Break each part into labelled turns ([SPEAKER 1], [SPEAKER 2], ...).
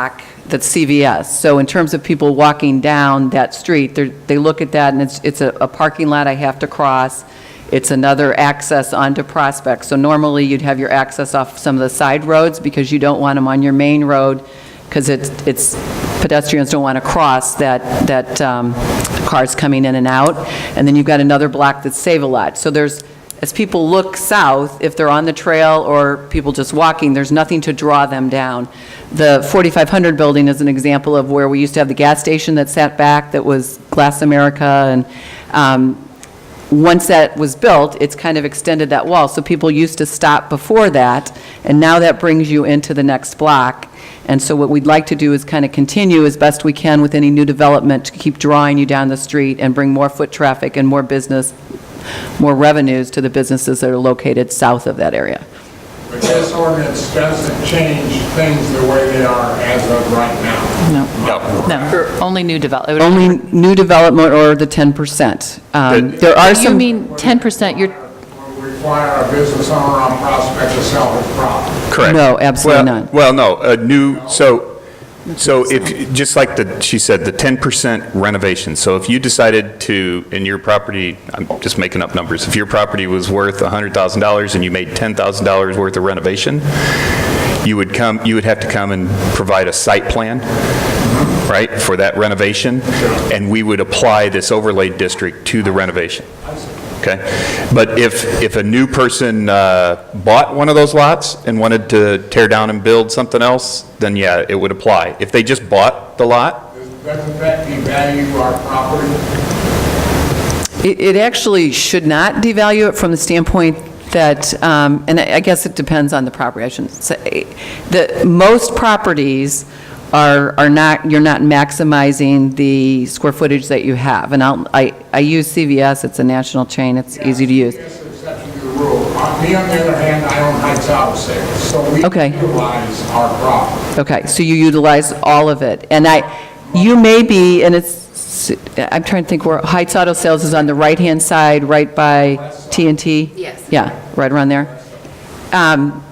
[SPEAKER 1] block that's CVS. So in terms of people walking down that street, they're- they look at that, and it's it's a a parking lot I have to cross. It's another access onto Prospect. So normally, you'd have your access off some of the side roads, because you don't want them on your main road, because it's, pedestrians don't want to cross that, that um, cars coming in and out. And then you've got another block that's Save-A-Lot. So there's, as people look south, if they're on the trail or people just walking, there's nothing to draw them down. The 4500 building is an example of where we used to have the gas station that sat back, that was Glass America, and um, once that was built, it's kind of extended that wall. So people used to stop before that, and now that brings you into the next block. And so what we'd like to do is kind of continue as best we can with any new development to keep drawing you down the street and bring more foot traffic and more business, more revenues to the businesses that are located south of that area.
[SPEAKER 2] But this ordinance doesn't change things the way they are as of right now.
[SPEAKER 1] No.
[SPEAKER 3] No.
[SPEAKER 4] No, only new development.
[SPEAKER 1] Only new development or the 10%. Um, There are some...
[SPEAKER 4] You mean 10%, you're,
[SPEAKER 2] Would Require a business owner on Prospect to sell his property.
[SPEAKER 3] Correct.
[SPEAKER 1] No, absolutely
[SPEAKER 3] Well-
[SPEAKER 1] not.
[SPEAKER 3] Well, no, a new, so, so if, just like the, she said, the 10% renovation. So if you decided to, in your property, I'm just making up numbers, if your property was worth $100,000 and you made $10,000 worth of renovation, you would come, you would have to come and provide a site plan, right, for that renovation? And we would apply this overlay district to the renovation. Okay? But if, if a new person uh, bought one of those lots and wanted to tear down and build something else, then yeah, it would apply. If they just bought the lot,
[SPEAKER 2] Doesn't that devalue our property?
[SPEAKER 1] It it actually should not devalue it from the standpoint that, um, and I I guess it depends on the property, I shouldn't say, the, most properties are are not, you're not maximizing the square footage that you have. And I'll, I I use CVS, it's a national chain, it's easy to use.
[SPEAKER 2] Yes, exception to the rule. Uh, Me, on the other hand, I own Heights Auto Sales, so we
[SPEAKER 1] Okay.
[SPEAKER 2] utilize our property.
[SPEAKER 1] Okay, so you utilize all of it. And I, you may be, and it's, I'm trying to think where, Heights Auto Sales is on the right-hand side, right by TNT? Yes. Yeah, right around there. Um,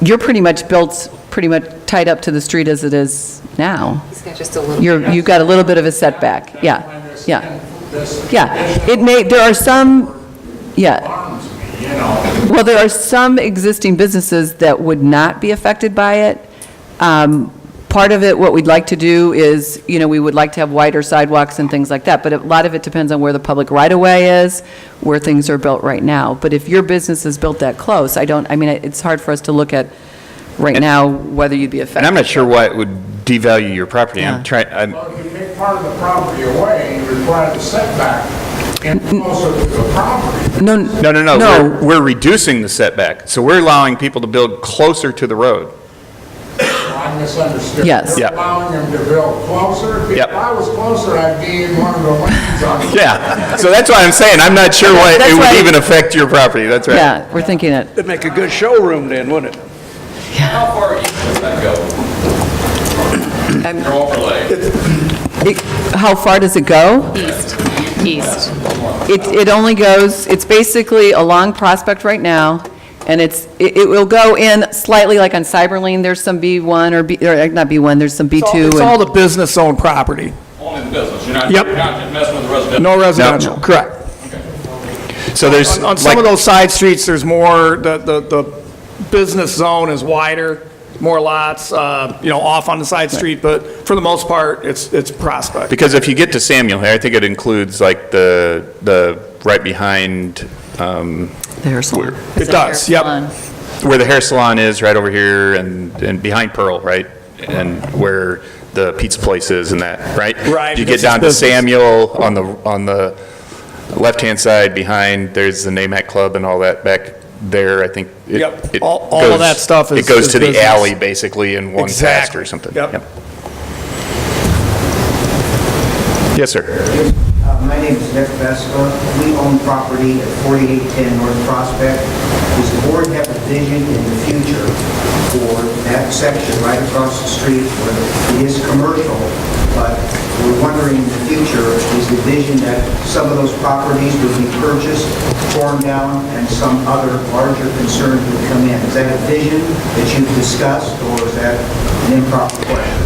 [SPEAKER 1] You're pretty much built, pretty much tied up to the street as it is now.
[SPEAKER 5] He's got just a little.
[SPEAKER 1] You're, you've got a little bit of a setback, yeah,
[SPEAKER 2] I
[SPEAKER 1] yeah,
[SPEAKER 2] understand This
[SPEAKER 1] yeah. It may, there are some, yeah.
[SPEAKER 2] harms me, you know.
[SPEAKER 1] Well, there are some existing businesses that would not be affected by it. Um, Part of it, what we'd like to do is, you know, we would like to have wider sidewalks and things like that, but a lot of it depends on where the public right-of-way is, where things are built right now. But if your business is built that close, I don't, I mean, it's hard for us to look at right now whether you'd be affected.
[SPEAKER 3] and I'm not sure why it would devalue your property.
[SPEAKER 1] Yeah.
[SPEAKER 3] I'm trying, I'm,
[SPEAKER 2] Well, if you take part of the property away, you require the setback and closer to the property.
[SPEAKER 1] No,
[SPEAKER 3] no, no, no.
[SPEAKER 1] No,
[SPEAKER 3] we're- We're reducing the setback. So we're allowing people to build closer to the road.
[SPEAKER 2] I misunderstood.
[SPEAKER 1] Yes.
[SPEAKER 2] You're
[SPEAKER 3] Yeah.
[SPEAKER 2] allowing them to build closer. If
[SPEAKER 3] Yep.
[SPEAKER 2] I was closer, I'd be in one of the lanes on the
[SPEAKER 3] Yeah, so that's why I'm saying, I'm not sure why
[SPEAKER 1] That's
[SPEAKER 3] it
[SPEAKER 1] why-
[SPEAKER 3] would even affect your property, that's right.
[SPEAKER 1] yeah, we're thinking it.
[SPEAKER 6] It'd make a good showroom then, wouldn't it?
[SPEAKER 7] How far east does that go? Your overlay,
[SPEAKER 1] It- How far does it go?
[SPEAKER 4] east, east.
[SPEAKER 1] It, it only goes, it's basically along Prospect right now, and it's, it it will go in slightly, like on Cyberlane, there's some B1 or B, or not B1, there's some B2.
[SPEAKER 6] It's all
[SPEAKER 1] and-
[SPEAKER 6] the business-owned property,
[SPEAKER 7] only the business, you're not,
[SPEAKER 6] Yep.
[SPEAKER 7] you're not messing with the residential.
[SPEAKER 6] no residential, correct.
[SPEAKER 3] So there's,
[SPEAKER 6] On- On
[SPEAKER 3] like-
[SPEAKER 6] some of those side streets, there's more, the, the, the business zone is wider, more lots, uh, you know, off on the side street, but for the most part, it's, it's Prospect.
[SPEAKER 3] because if you get to Samuel here, I think it includes like the, the, right behind, um,
[SPEAKER 1] The hair salon.
[SPEAKER 6] It does, yep.
[SPEAKER 3] where the hair salon is, right over here, and, and behind Pearl, right? And where the pizza place is and that, right?
[SPEAKER 6] Right,
[SPEAKER 3] You get
[SPEAKER 6] because it's
[SPEAKER 3] down to
[SPEAKER 6] business.
[SPEAKER 3] Samuel on the, on the left-hand side, behind, there's the NAMAC Club and all that back there, I think. it-
[SPEAKER 6] Yep.
[SPEAKER 3] it
[SPEAKER 6] All- all of
[SPEAKER 3] goes-
[SPEAKER 6] that stuff is-
[SPEAKER 3] It goes
[SPEAKER 6] is
[SPEAKER 3] to the
[SPEAKER 6] business.
[SPEAKER 3] alley, basically, in one pass
[SPEAKER 6] Exactly.
[SPEAKER 3] or something.
[SPEAKER 6] Yep.
[SPEAKER 3] Yes, sir.
[SPEAKER 8] Uh, My name is Nick Vespa. We own property at 4810 North Prospect. Does the board have a vision in the future for that section right across the street where it is commercial, but we're wondering in the future, is the vision that some of those properties would be purchased, torn down, and some other larger concern would come in? Is that a vision that you've discussed, or is that an improper plan?